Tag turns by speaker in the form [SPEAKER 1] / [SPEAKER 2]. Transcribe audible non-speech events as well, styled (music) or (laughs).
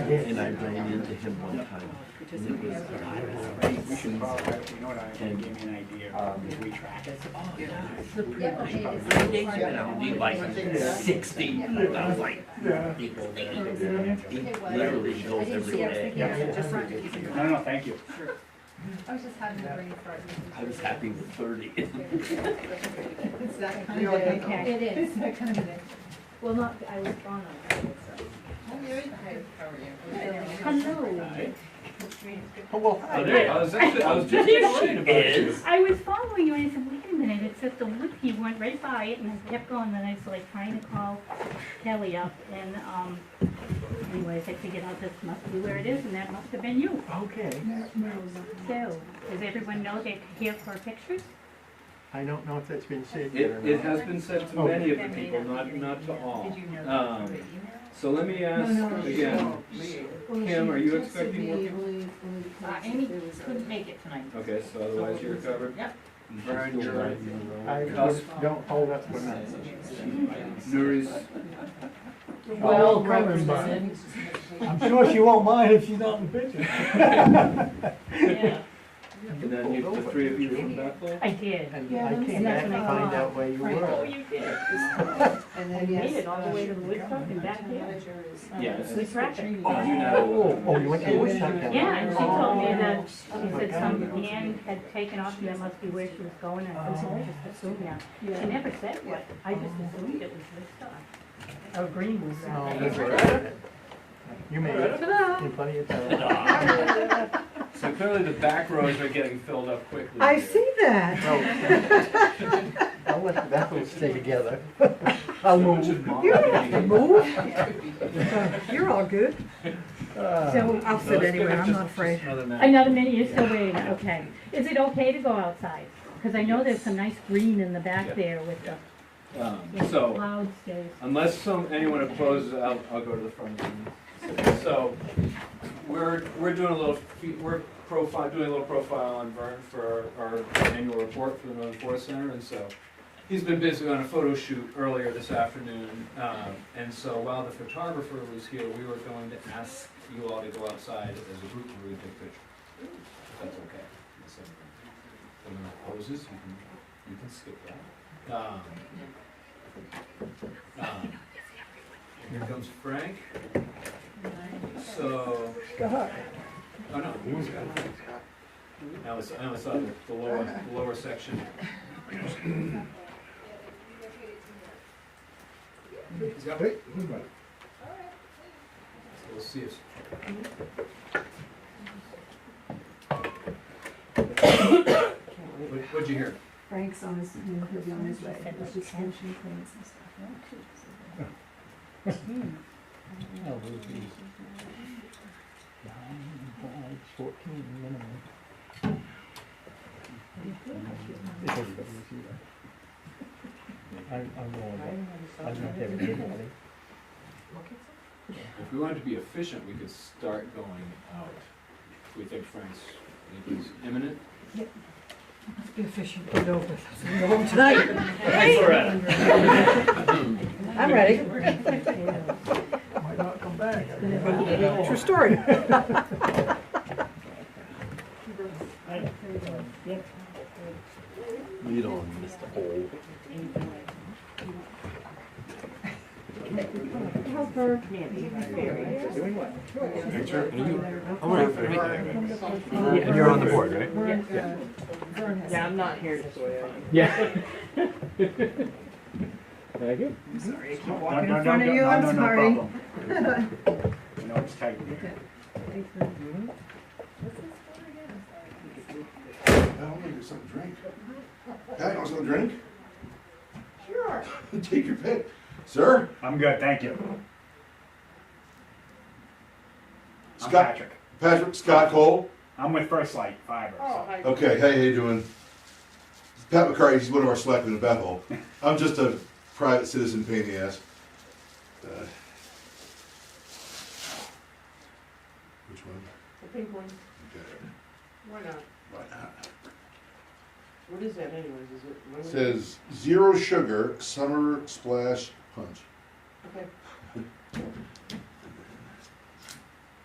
[SPEAKER 1] and I ran into him one time. And it was,
[SPEAKER 2] We should probably, you know what, I think gave me an idea, of if we track it.
[SPEAKER 1] oh, yeah, it's a pretty nice problem. The days went out, we like sixty, I was like, it literally goes every day.
[SPEAKER 2] No, no, thank you.
[SPEAKER 3] I was just having a brain fart.
[SPEAKER 1] I was happy with
[SPEAKER 4] (laughs)
[SPEAKER 1] thirty.
[SPEAKER 3] It's that kind of day. It is.
[SPEAKER 4] (laughs)
[SPEAKER 3] It's that kind of day. Well, not, I was gone on Friday, so. Hello.
[SPEAKER 1] Oh, there you
[SPEAKER 5] I
[SPEAKER 1] are.
[SPEAKER 5] was actually, I was just
[SPEAKER 6] There
[SPEAKER 5] worried about you.
[SPEAKER 1] Is.
[SPEAKER 6] I was following you and I said, wait a minute, it said the wood, he went right by it and I kept going, then I was like trying to call Kelly up and, um, anyways, I figured out this must be where it is and that must have been you.
[SPEAKER 7] Okay,
[SPEAKER 6] So, does everyone know they're here for pictures?
[SPEAKER 7] I don't know if that's been said yet or
[SPEAKER 5] It, it
[SPEAKER 7] not.
[SPEAKER 5] has been said to many of the people, not, not to all. Um, so let me ask
[SPEAKER 3] No, no,
[SPEAKER 5] again, Kim, are you expecting working?
[SPEAKER 6] Uh,
[SPEAKER 3] Amy couldn't make it tonight.
[SPEAKER 5] Okay, so otherwise you're covered.
[SPEAKER 3] Yep.
[SPEAKER 5] Vern, you're right.
[SPEAKER 7] I
[SPEAKER 5] Us-
[SPEAKER 7] would- don't hold up for nothing.
[SPEAKER 5] Nuri's,
[SPEAKER 7] Well, coming by. I'm sure she won't mind if she's not in the picture.
[SPEAKER 5] and then you, the three of you from Bethel?
[SPEAKER 6] I did.
[SPEAKER 7] And I came back and find out where you were.
[SPEAKER 6] Oh, you did.
[SPEAKER 3] And
[SPEAKER 6] I made it
[SPEAKER 4] uh,
[SPEAKER 6] all the way to the Woodstock and back here.
[SPEAKER 5] Yes.
[SPEAKER 6] We tracked it.
[SPEAKER 5] Did you
[SPEAKER 7] Oh, oh,
[SPEAKER 5] know?
[SPEAKER 7] you went to Woodstock then?
[SPEAKER 6] Yeah, and she told me that, she said some hand had taken off and that must be where she was going and I said, I just assumed that. She never said what, I just assumed it was Woodstock. Or Greenwood
[SPEAKER 7] No,
[SPEAKER 6] rather.
[SPEAKER 7] that's all right. You made it in plenty of time.
[SPEAKER 8] (laughs)
[SPEAKER 5] So clearly the back rows are getting filled up quickly.
[SPEAKER 4] I
[SPEAKER 5] here.
[SPEAKER 4] see that.
[SPEAKER 7] No. I'll let the battles stay together. (laughs) I'll
[SPEAKER 5] Someone
[SPEAKER 7] move.
[SPEAKER 5] should model
[SPEAKER 4] You don't have to
[SPEAKER 5] the-
[SPEAKER 4] move. (laughs) You're all good.
[SPEAKER 7] Ah,
[SPEAKER 8] oh,
[SPEAKER 4] So I'll
[SPEAKER 5] No,
[SPEAKER 4] sit
[SPEAKER 5] it's
[SPEAKER 4] anywhere,
[SPEAKER 5] good,
[SPEAKER 4] I'm
[SPEAKER 5] just-
[SPEAKER 4] not
[SPEAKER 5] just
[SPEAKER 4] afraid.
[SPEAKER 5] another minute.
[SPEAKER 6] Another minute, you're still waiting, okay. Is it okay to go outside? Because I know there's some nice green in the
[SPEAKER 5] Yeah.
[SPEAKER 6] back there with the
[SPEAKER 5] Um,
[SPEAKER 6] with the
[SPEAKER 5] So.
[SPEAKER 6] cloud stays.
[SPEAKER 5] Unless some, anyone opposes, I'll, I'll go to the front. So, we're, we're doing a little, fe- we're profile, doing a little profile on Vern for our annual report for the Northern Forest Center, and so he's been busy on a photo shoot earlier this afternoon, um, and so while the photographer was here, we were going to ask you all to go outside as a group and really take pictures. If that's okay. If anyone opposes, you can, you can skip that. Um, um, Here comes Frank. So. Oh, no. Now it's, now it's on uh, the lower, the lower section. So We'll see if. What- What'd you hear?
[SPEAKER 4] Frank's on his, he'll be on his way.
[SPEAKER 6] He's just finishing
[SPEAKER 7] well, we'll be nine, five, 14 minimum. I'm, I'm going back. I'm not having anybody.
[SPEAKER 5] If we wanted to be efficient, we could start going out. We think Frank's, I think he's imminent.
[SPEAKER 4] Let's be efficient, get over this. I'm going home tonight. I'm ready.
[SPEAKER 7] (laughs) Might not come back.
[SPEAKER 4] True story.
[SPEAKER 1] Lead on, Mr. Hole.
[SPEAKER 7] And you're on the board, right?
[SPEAKER 3] Yeah, I'm not here just for fun.
[SPEAKER 2] Sorry, I keep
[SPEAKER 4] walking in front of you, I'm sorry.
[SPEAKER 2] I know it's tight in here.
[SPEAKER 9] I'll make you some drink. Can I have some drink? Sure. Take your pick. Sir?
[SPEAKER 2] I'm good, thank you. I'm
[SPEAKER 9] Scott-
[SPEAKER 2] Patrick.
[SPEAKER 9] Patrick Scott Cole?
[SPEAKER 2] I'm with First Light Fiber.
[SPEAKER 7] Oh.
[SPEAKER 2] so-
[SPEAKER 9] Okay, hey, how you doing? Pat McCarty, he's one of our selectmen in Bethel. I'm just a private citizen pain in the ass. Uh, Which one?
[SPEAKER 8] The pink one,
[SPEAKER 9] Okay.
[SPEAKER 8] why not? What is that anyways, is it? what is it?
[SPEAKER 9] Says zero sugar summer splash punch.
[SPEAKER 8] Okay.